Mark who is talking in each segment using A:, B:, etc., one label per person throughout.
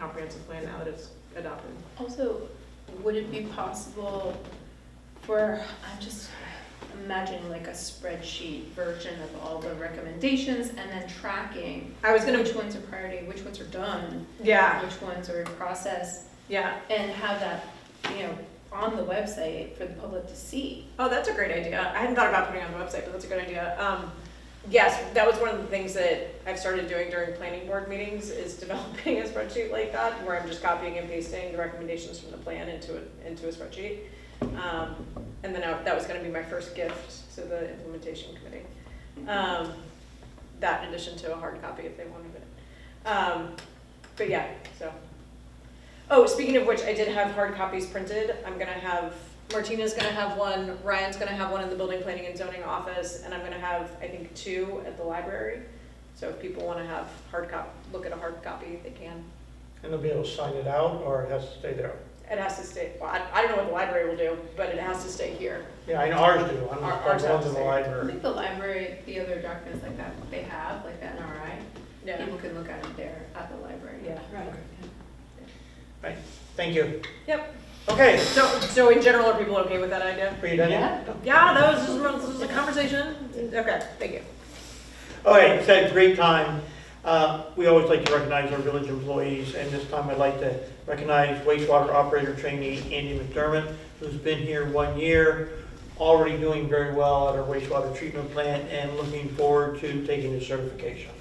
A: comprehensive plan now that it's adopted.
B: Also, would it be possible for, I'm just imagining like a spreadsheet version of all the recommendations and then tracking
A: I was gonna,
B: which ones are priority, which ones are done,
A: yeah,
B: which ones are in process,
A: yeah.
B: and have that, you know, on the website for the public to see.
A: Oh, that's a great idea. I hadn't thought about putting it on the website, but that's a good idea. Um, yes, that was one of the things that I've started doing during planning board meetings is developing a spreadsheet like that, where I'm just copying and pasting the recommendations from the plan into a, into a spreadsheet. Um, and then I, that was gonna be my first gift to the implementation committee. Um, that in addition to a hard copy if they wanted it. Um, but yeah, so. Oh, speaking of which, I did have hard copies printed. I'm gonna have, Martina's gonna have one, Ryan's gonna have one in the building planning and zoning office, and I'm gonna have, I think, two at the library. So if people wanna have hard cop, look at a hard copy, they can.
C: And they'll be able to sign it out, or it has to stay there?
A: It has to stay, well, I, I don't know what the library will do, but it has to stay here.
C: Yeah, I know ours do, I'm
A: Our-
C: not
A: ours have
C: ones
A: to
C: in the
A: stay.
B: I
C: library.
B: think the library, the other documents like that, they have, like that NRI,
A: Yeah.
B: people can look at it there at the library.
A: Yeah.
D: Right.
C: Thank you.
A: Yep.
C: Okay,
A: So, so in general, are people okay with that idea?
C: are you done yet?
A: Yeah, that was just, this was a conversation. Okay, thank you.
C: All right, so great time. Uh, We always like to recognize our village employees, and this time I'd like to recognize wastewater operator trainee Andy McDermott, who's been here one year, already doing very well at our wastewater treatment plant, and looking forward to taking his certification.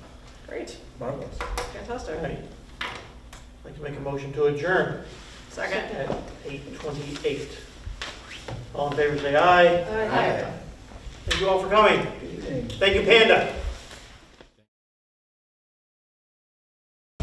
A: Great,
C: Marvelous. All
A: fantastic.
C: right. I'd like to make a motion to adjourn.
A: Second.
C: at eight twenty-eight.
A: 哎
C: All in favor, say aye. Thank you all for coming. Thank you, Panda.